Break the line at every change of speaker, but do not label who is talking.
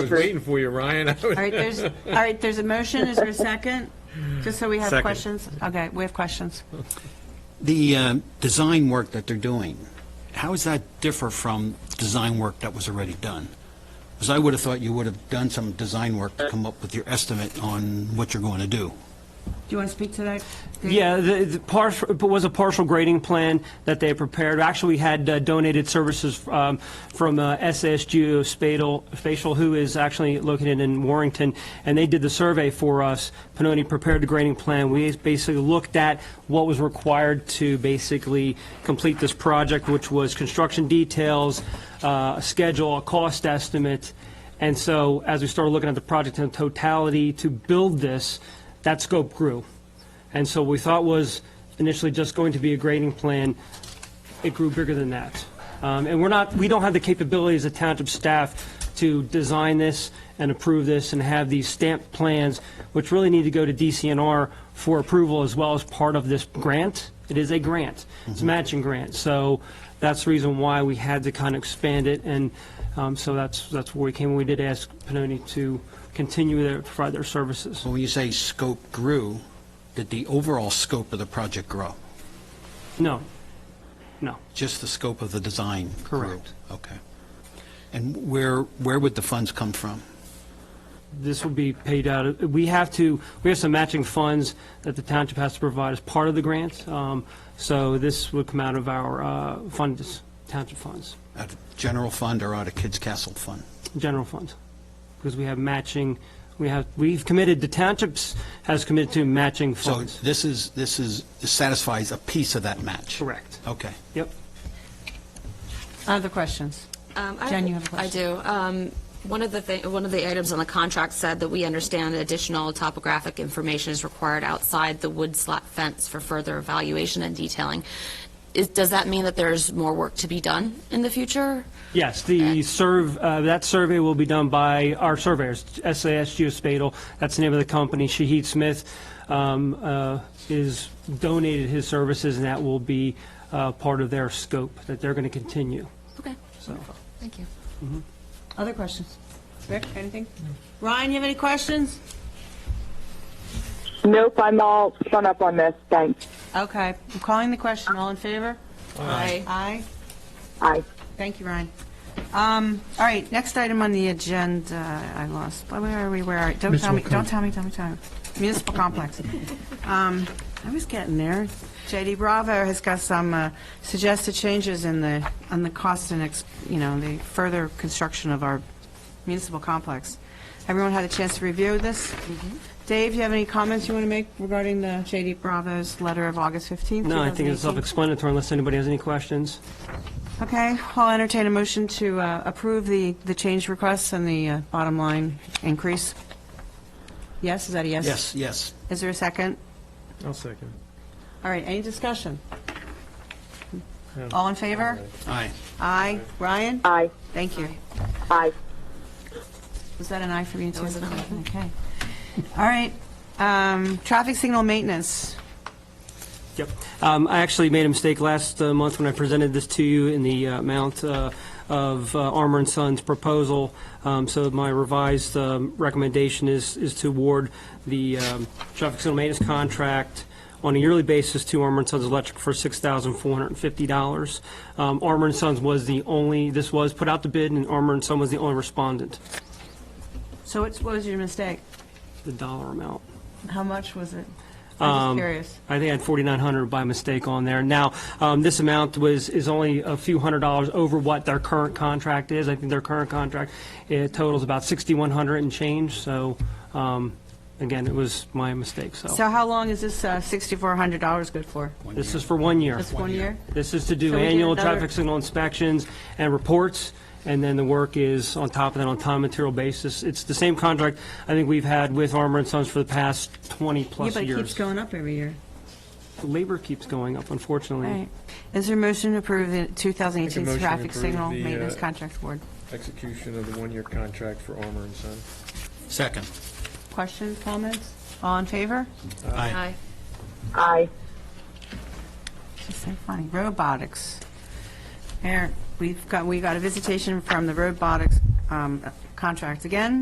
I was waiting for you, Ryan. I was-
All right, there's, all right, there's a motion, is there a second? Just so we have
Second.
questions. Okay, we have questions.
The um, design work that they're doing, how does that differ from design work that was already done? Because I would have thought you would have done some design work to come up with your estimate on what you're going to do.
Do you want to speak to that? Dave?
Yeah, the, the partial, it was a partial grading plan that they prepared. Actually, we had uh, donated services um, from uh, SAS Geospatial, Spatial, who is actually located in Warrington, and they did the survey for us. Panoni prepared the grading plan. We basically looked at what was required to basically complete this project, which was construction details, uh, a schedule, a cost estimate. And so, as we started looking at the project in totality to build this, that scope grew. And so we thought was initially just going to be a grading plan, it grew bigger than that. Um, And we're not, we don't have the capabilities of township staff to design this and approve this and have these stamped plans, which really need to go to DCNR for approval as well as part of this grant. It is a grant. It's a matching grant. So that's the reason why we had to kind of expand it. And um, so that's, that's where we came. We did ask Panoni to continue to provide their services.
But when you say scope grew, did the overall scope of the project grow?
No, no.
Just the scope of the design grew?
Correct.
Okay. And where, where would the funds come from?
This will be paid out, we have to, we have some matching funds that the township has to provide as part of the grant, Um, so this would come out of our uh, funds, township funds,
Out of general fund or out of Kids Castle fund?
general funds, because we have matching, we have, we've committed, the townships has committed to matching
So
funds.
this is, this is, this satisfies a piece of that match?
Correct,
Okay.
yep.
Other questions?
Um, I-
Jen, you have a
I
question.
do. Um, One of the thing, one of the items on the contract said that we understand additional topographic information is required outside the wood slat fence for further evaluation and detailing. Is, does that mean that there's more work to be done in the future?
Yes, the serve, uh, that survey will be done by our surveyors, SAS Geospatial, that's the name of the company. Shahid Smith um, uh, is donated his services, and that will be uh, part of their scope, that they're going to continue.
Okay,
So,
thank you.
Other questions? Rick, anything? Ryan, you have any questions?
Nope, I'm all spun up on this. Thanks.
Okay, I'm calling the question, all in favor?
Aye.
Aye.
Aye.
Thank you, Ryan. Um, All right, next item on the agenda, I lost, where are we, where are, we? don't tell me, don't tell me, tell me, tell me. Municipal complex. Um, I was getting there. JD Bravo has got some uh, suggested changes in the, on the cost and, ex- you know, the further construction of our municipal complex. Everyone had a chance to review this?
Mm-hmm.
Dave, you have any comments you want to make regarding the JD Bravo's letter of August 15th?
No, I think
2018?
it's self-explanatory unless anybody has any questions.
Okay, I'll entertain a motion to uh, approve the, the change requests and the uh, bottom line increase. Yes, is that a yes?
Yes, yes.
Is there a second?
I'll second.
All right, any discussion? All in favor?
Aye.
Aye. Ryan?
Aye.
Thank you.
Aye.
Was that an aye for you too?
was an aye.
Okay. All right, um, traffic signal maintenance.
Yep. Um, I actually made a mistake last uh, month when I presented this to you in the uh, amount uh, of uh, Armor and Sons proposal. Um, So my revised um, recommendation is, is to award the um, traffic signal maintenance contract on a yearly basis to Armor and Sons Electric for $6,450. Um, Armor and Sons was the only, this was put out to bid, and Armor and Sons was the only respondent,
So what's- what was your mistake?
the dollar amount.
How much was it? I'm just curious.
I think I had 4,900 by mistake on there. Now, um, this amount was, is only a few hundred dollars over what their current contract is. I think their current contract, it totals about 6,100 and change, so, um, again, it was my mistake, so.
So how long is this uh, $6,400 good for?
This is for one year.
Just one year?
This is to
So
do
we did
annual
another-
traffic signal inspections and reports, and then the work is on top of that on time and material basis. It's the same contract I think we've had with Armor and Sons for the past 20-plus
Yeah, but it keeps
years.
going up every year.
Labor keeps going up, unfortunately.
All right. Is there a motion to approve the
Make a
2018
motion to
traffic
approve
signal
the, uh,
maintenance contract award?
Execution of the one-year contract for Armor and Son.
Second.
Questions, comments? All in favor?
Aye.
Aye.
It's just so funny. Robotics. Eric, we've got, we got a visitation from the robotics um, contract again.